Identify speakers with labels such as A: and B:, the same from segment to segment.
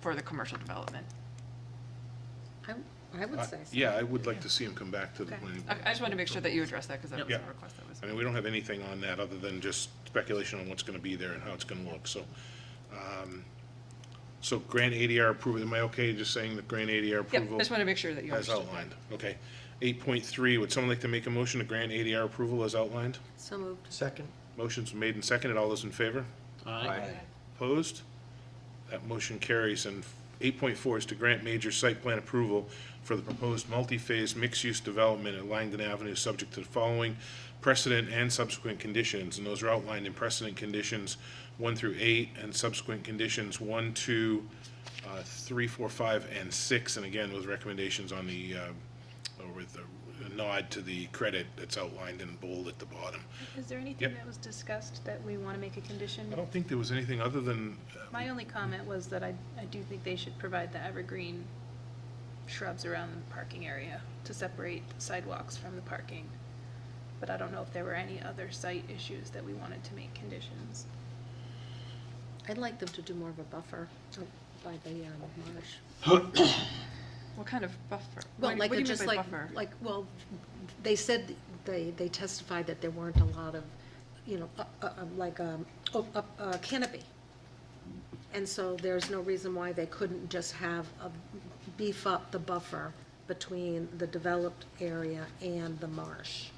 A: for the commercial development.
B: I, I would say so.
C: Yeah, I would like to see him come back to the planning
A: I
C: board.
A: I just wanted to make sure that you addressed that because that was
C: Yeah.
A: a request that was.
C: I mean, we don't have anything on that other than just speculation on what's gonna be there and how it's gonna look, so. um, So grant ADR approval, am I okay just saying that grant ADR
A: Yeah,
C: approval?
A: I just wanted to make sure that you
C: As
A: understood.
C: outlined, okay. Eight point three, would someone like to make a motion to grant ADR approval as outlined?
B: So moved.
D: Second?
C: Motion's made and seconded, all those in favor?
D: Aye.
C: Opposed? That motion carries. And 8.4 is to grant major site plan approval for the proposed multi-phase mixed-use development at Langdon Avenue, subject to the following precedent and subsequent conditions. And those are outlined in precedent conditions 1 through 8, and subsequent conditions 1, 2, uh, 3, 4, 5, and 6. And again, with recommendations on the, uh, or with a nod to the credit that's outlined in bold at the bottom.
E: Is there anything
C: Yep.
E: that was discussed that we want to make a condition?
C: I don't think there was anything other than, uh,
E: My only comment was that I, I do think they should provide the evergreen shrubs around the parking area to separate sidewalks from the parking. But I don't know if there were any other site issues that we wanted to make conditions.
B: I'd like them to do more of a buffer uh, by the um, marsh.
A: What kind of buffer?
B: Well,
A: What-
B: like,
A: what do you mean
B: just
A: by
B: like,
A: buffer?
B: like, well, they said, they, they testified that there weren't a lot of, you know, uh, uh, um, like, um, oh, uh, uh, canopy. And so there's no reason why they couldn't just have, a- beef up the buffer between the developed area and the marsh.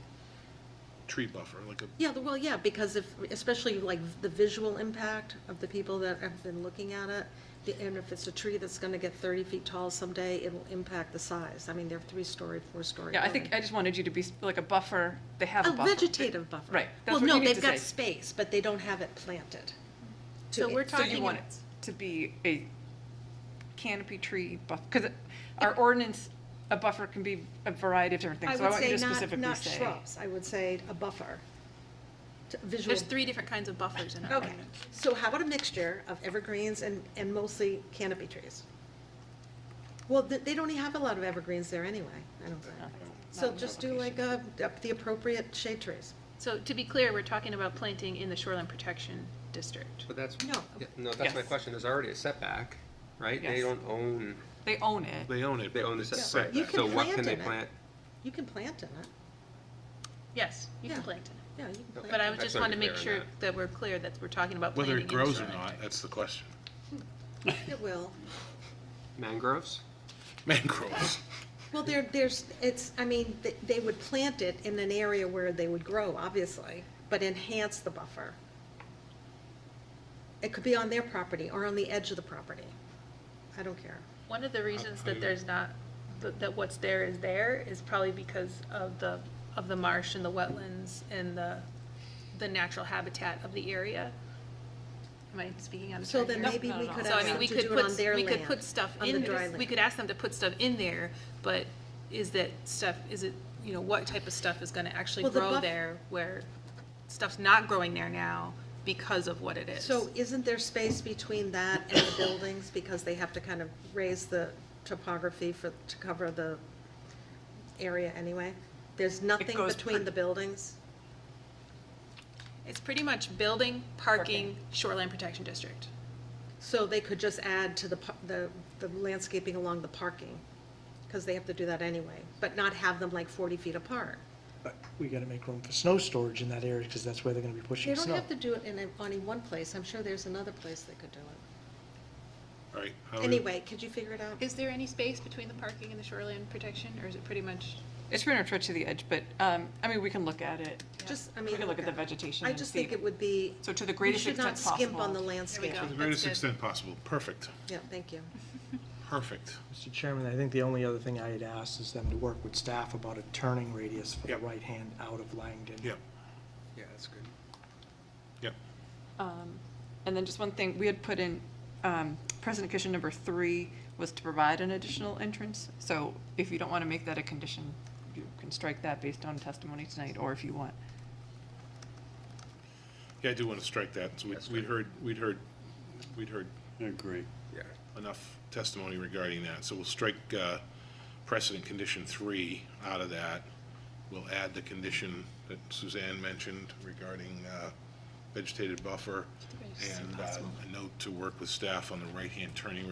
C: tree buffer, like a
B: Yeah, the- well, yeah, because if, especially like the visual impact of the people that have been looking at it, the- and if it's a tree that's gonna get thirty feet tall someday, it'll impact the size. I mean, they're three-story, four-story.
A: Yeah, I think, I
B: buildings.
A: just wanted you to be, s- like a buffer, they have a
B: A
A: buffer.
B: vegetative buffer.
A: Right, that's what you
B: Well,
A: need
B: no,
A: to
B: they've
A: say.
B: got space, but they don't have it planted. to
E: So we're
B: it.
A: So you
E: talking,
A: want it to be a canopy tree buff, because our ordinance, a buffer can be a variety of different
B: I
A: things, so I
B: would
A: want you
B: say
A: to
B: not,
A: specifically
B: not
A: say.
B: shrubs, I would say a buffer. To- Visual.
E: there's three different kinds of buffers in our
B: Okay,
E: ordinance.
B: so how about a mixture of evergreens and, and mostly canopy trees? Well, they, they don't even have a lot of evergreens there anyway, I don't think. So
A: Not in
B: just do like, uh, up the appropriate shade trees.
E: So to be clear, we're talking about planting in the shoreline protection district.
F: But that's,
B: No.
F: yeah, no, that's my
A: Yes.
F: question, there's already a setback, right? They
A: Yes.
F: don't own,
A: They own it.
C: They own it.
F: they own the setback,
B: You can
F: so what can
B: plant
F: they
B: in it.
F: plant?
B: You can plant in it,
E: Yes, you can
B: Yeah.
E: plant in it.
B: yeah, you can
E: But
B: plant.
E: I would
F: That's
E: just
F: not
E: wanted to make
F: clear on
E: sure
F: that.
E: that we're clear that we're talking about planting
C: Whether
E: in
C: it
E: the
C: grows or
E: shoreline
C: not,
E: district.
C: that's the question.
B: It will.
F: Mangroves?
C: Mangroves.
B: Well, there, there's, it's, I mean, they, they would plant it in an area where they would grow, obviously, but enhance the buffer. It could be on their property or on the edge of the property. I don't care.
E: One of the reasons
C: I-
E: that there's not, that that what's there is there is probably because of the, of the marsh and the wetlands and the, the natural habitat of the area. Am I speaking out of
B: So
E: turn here?
B: then
A: No,
B: maybe
A: not
B: we
A: at
B: could
A: all.
E: So I
B: ask
E: mean,
B: them
E: we
B: to
E: could
B: do it on
E: put,
B: their
E: we
B: land.
E: could put stuff
B: on the
E: in,
B: dry
E: this- we
B: land.
E: could ask them to put stuff in there, but is that stuff, is it, you know, what type of stuff is gonna actually
B: Well, the
E: grow
B: buff-
E: there where stuff's not growing there now because of what it is?
B: So isn't there space between that and the buildings, because they have to kind of raise the topography for, to cover the area anyway? There's nothing
A: goes
B: between
A: per-
B: the buildings?
E: It's pretty much building, parking,
A: Parking.
E: shoreline protection district.
B: So they could just add to the, pa- the, the landscaping along the parking, because they have to do that anyway, but not have them like forty feet apart.
D: But we gotta make room for snow storage in that area, because that's where they're gonna be
B: They
D: pushing
B: don't
D: snow.
B: have to do it in, a- only one place, I'm sure there's another place they could do it.
C: All right. how do we-
B: Anyway, could you figure it out?
E: Is there any space between the parking and the shoreline protection, or is it pretty much?
A: It's pretty much right to the edge, but, um, I mean, we can look at it.
B: Just, I
A: We
B: mean.
A: can look at the vegetation
B: I
A: and
B: just
A: see.
B: think it would be.
A: So to the
B: we
A: greatest
B: should not
A: extent
B: skimp on
A: possible.
B: the
E: we
B: landscape.
E: go.
C: To the
E: That's
C: greatest
E: good.
C: extent possible. Perfect,
B: Yeah, thank you.
C: perfect.
D: Mr. Chairman, I think the only other thing I had asked is them to work with staff about a turning radius for the
C: Yep.
D: right hand out of Langdon.
C: Yep,
F: Yeah, that's good.
C: yep.
A: Um, And then just one thing, we had put in, um, precedent condition number three was to provide an additional entrance. So if you don't want to make that a condition, you can strike that based on testimony tonight, or if you want.
C: Yeah, I do want to strike that. So we'd- we'd heard, we'd heard, we'd heard
G: I agree.
F: Yeah.
C: enough testimony regarding that. So we'll strike uh, precedent condition three out of that. We'll add the condition that Suzanne mentioned regarding uh, vegetated buffer and uh, a note to work with staff on the right-hand turning